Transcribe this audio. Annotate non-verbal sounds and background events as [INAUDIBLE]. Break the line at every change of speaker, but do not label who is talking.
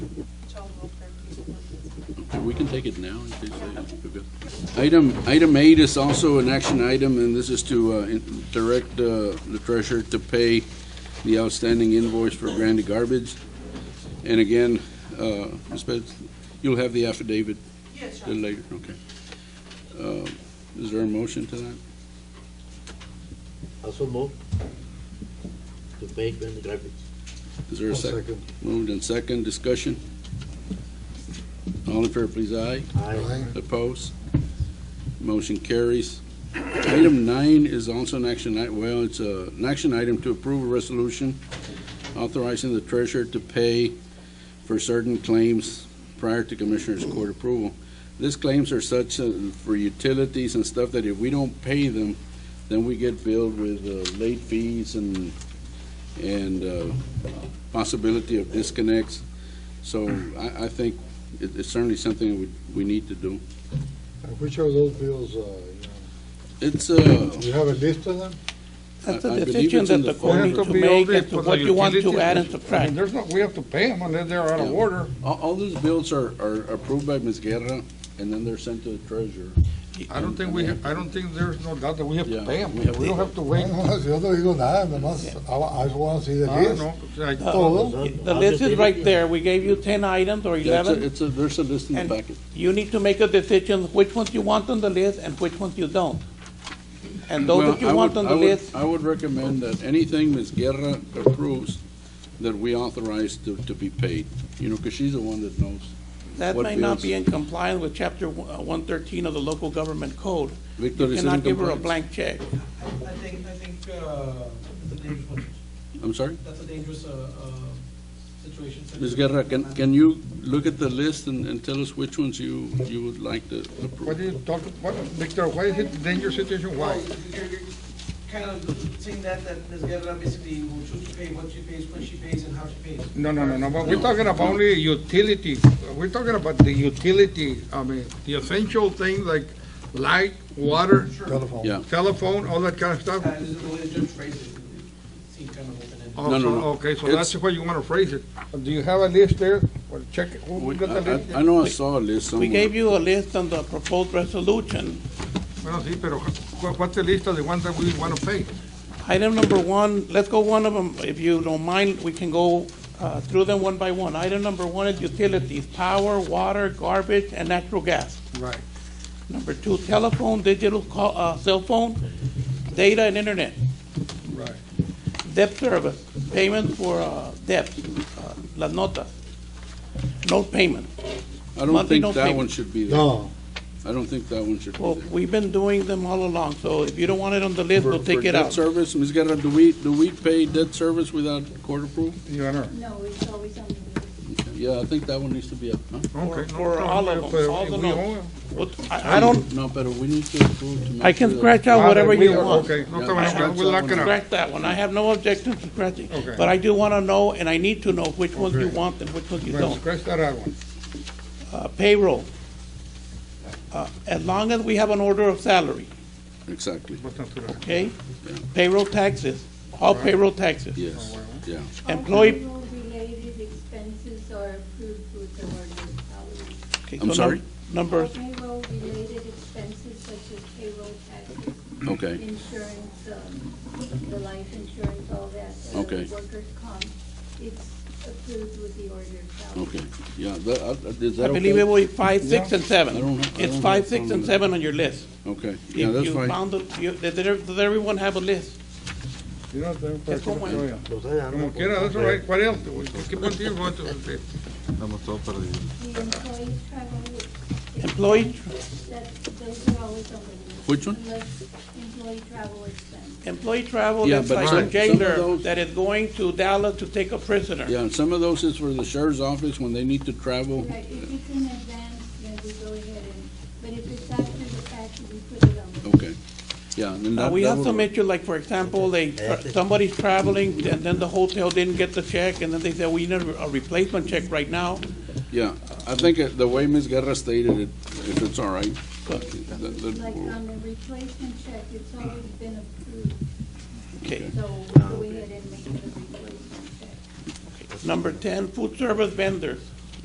We can take it now. in case they- we've got- Item, item eight is also an action item, and this is to uh, in- direct uh, the treasurer to pay the outstanding invoice for Grandy Garbage. And again, uh, Ms. Betts, you'll have the affidavit
Yes,
a little later, okay. Uh, Is there a motion to that?
Also move to pay when the garbage.
Is there a
I'll
second? Moved and second, discussion? All in fair, please, aye.
Aye.
Opposed? Motion carries. Item nine is also an action, i- well, it's a- an action item to approve a resolution authorizing the treasurer to pay for certain claims prior to Commissioners Court approval. These claims are such uh, for utilities and stuff that if we don't pay them, then we get billed with uh, late fees and, and uh, possibility of disconnects. So I, I think it- it's certainly something we, we need to do.
Which of those bills, uh, you
It's, uh,
know, you have a list of them?
That's
I- I
a
believe
decision
it's in
that
the
the court
form.
needs
It has
to
be all
make
the-
as to
for the
what you want to
utilities.
add and
I mean,
subtract.
there's no, we have to pay them unless they're out of
Yeah.
order.
all, all those bills are, are approved by Ms. Guerra, and then they're sent to the treasurer.
I don't think we, I don't think there's no doubt that we have to
Yeah.
pay them. We don't have
[LAUGHS]
to wait.
No, yo no digo nada, nomás, I, I just wanna see the
I
list.
know, like,
Todo.
The list is right there. We gave you ten items or
Yeah, It's a,
eleven.
it's a, there's a list in the
And-
packet.
You need to make a decision which ones you want on the list and which ones you don't. And those
Well,
that
I
you want
would-
on
I
the
would-
list,
I would recommend that anything Ms. Guerra approves, that we authorize to, to be paid, you know, because she's the one that knows.
that
what
may not
bills?
be in compliance with chapter one thirteen of the local government code.
Victor
You
is it in
cannot give her a
compliance?
blank check.
I I think, I think uh, that's a dangerous one.
I'm sorry?
That's a dangerous uh, uh, situation.
Ms. Guerra, can, can you look at the list and, and tell us which ones you, you would like to
what do
approve?
you talk, what, Victor, why is it dangerous situation? Why?
Well, you're- you're Kind of saying that, that Ms. Guerra basically will choose to pay what she pays, when she pays, and how she pays.
No, no, no, no, but we're talking about only utility. We're talking about the utility, I mean, the essential things like light, water,
Telephone.
Yeah.
telephone, all that kind of stuff.
Uh, This is the way the judge phrased it, it seemed kind of open-ended.
Oh,
No, no,
so-
no.
Okay, so
It's-
that's why you want to phrase it. Do you have a list there? Or check, it? who
We-
got the
I,
list?
I- I know I saw a list
We
somewhere.
gave you a list on the proposed resolution.
Bueno, sí, pero ¿cu- what's the list of the ones that we want to pay?
Item number one, let's go one of them, if you don't mind, we can go uh, through them one by one. Item number one is utilities, power, water, garbage, and natural gas.
Right.
Number two, telephone, digital call, uh, cell phone, data and internet.
Right.
Debt service, payment for uh, debts, uh, las notas. Note payment.
I don't
Monthly
think
note
that
payment.
one should be there.
No,
I don't think that one should be
Well,
there.
we've been doing them all along, so if you don't want it on the list,
For-
we'll take
for
it
Debt
out.
service, Ms. Guerra, do we, do we pay debt service without court approval?
Your Honor.
No, it's always on the list.
Yeah, I think that one needs to be up, huh?
For-
Okay. no
For
problem,
all of
but
them, all the
we
notes.
own-
What- I I don't,
No, but we need to approve to make.
I can
sure
scratch
that-
out whatever
We
you
are-
want.
Okay, no,
Yeah,
problem,
I
okay,
have
we'll lock it up.
Scratch that one, I have no objection to scratching.
Okay.
But I do want to know, and I need to know which ones you
Okay.
want and which ones you
Well,
don't.
scratch that out one.
Uh, Payroll. Uh, As long as we have an order of salary,
Exactly,
What's not to that?
okay? Payroll taxes, all payroll taxes.
yes, yeah.
Employee-
All payroll-related expenses are approved with the ordinance salary.
Okay,
I'm
so num-
sorry?
All
Numbers,
payroll-related expenses such as payroll taxes.
Okay.
Insurance, um, the life insurance, all that. uh,
Okay.
Workers' comp, it's approved with the order of salary.
Okay, yeah, that, uh, is
I
that okay?
believe it was five, six, and
I
seven.
don't- I don't
It's
have
five,
a
six,
problem
and
with
seven on your list.
Okay, yeah,
If
that's
you
fine.
found the- you- Did did- did everyone have a list?
You know, then-
Es como el-
Oh, yeah.
Los hay, I don't
Como
know.
quiera, that's all right. ¿Cuál es? ¿Qué punto you want to-
The
Employee
employee travel, ex-
tr-
expense, that, those are always on the list.
Which one?
Unless employee travel expense.
Employee travel,
Yeah,
that's
but
like
some-
a
some of
jailer
those-
that is going to Dallas to take a prisoner.
Yeah, and some of those is for the sheriff's office when they need to travel.
Right, if it's in advance, then we go ahead and, but if it's after the fact, we put it on the
Okay, yeah, and then
Now,
that.
Uh, we
that
have
would
some
work.
issue, like, for example, they, somebody's traveling, and then the hotel didn't get the check, and then they said, we need a replacement check right now.
Yeah, I think uh, the way Ms. Guerra stated it, if it's all right. that- that
Like
will-
on the replacement check, it's already been approved,
Okay.
so we'll go ahead and make the replacement check.
Number ten, food service vendors.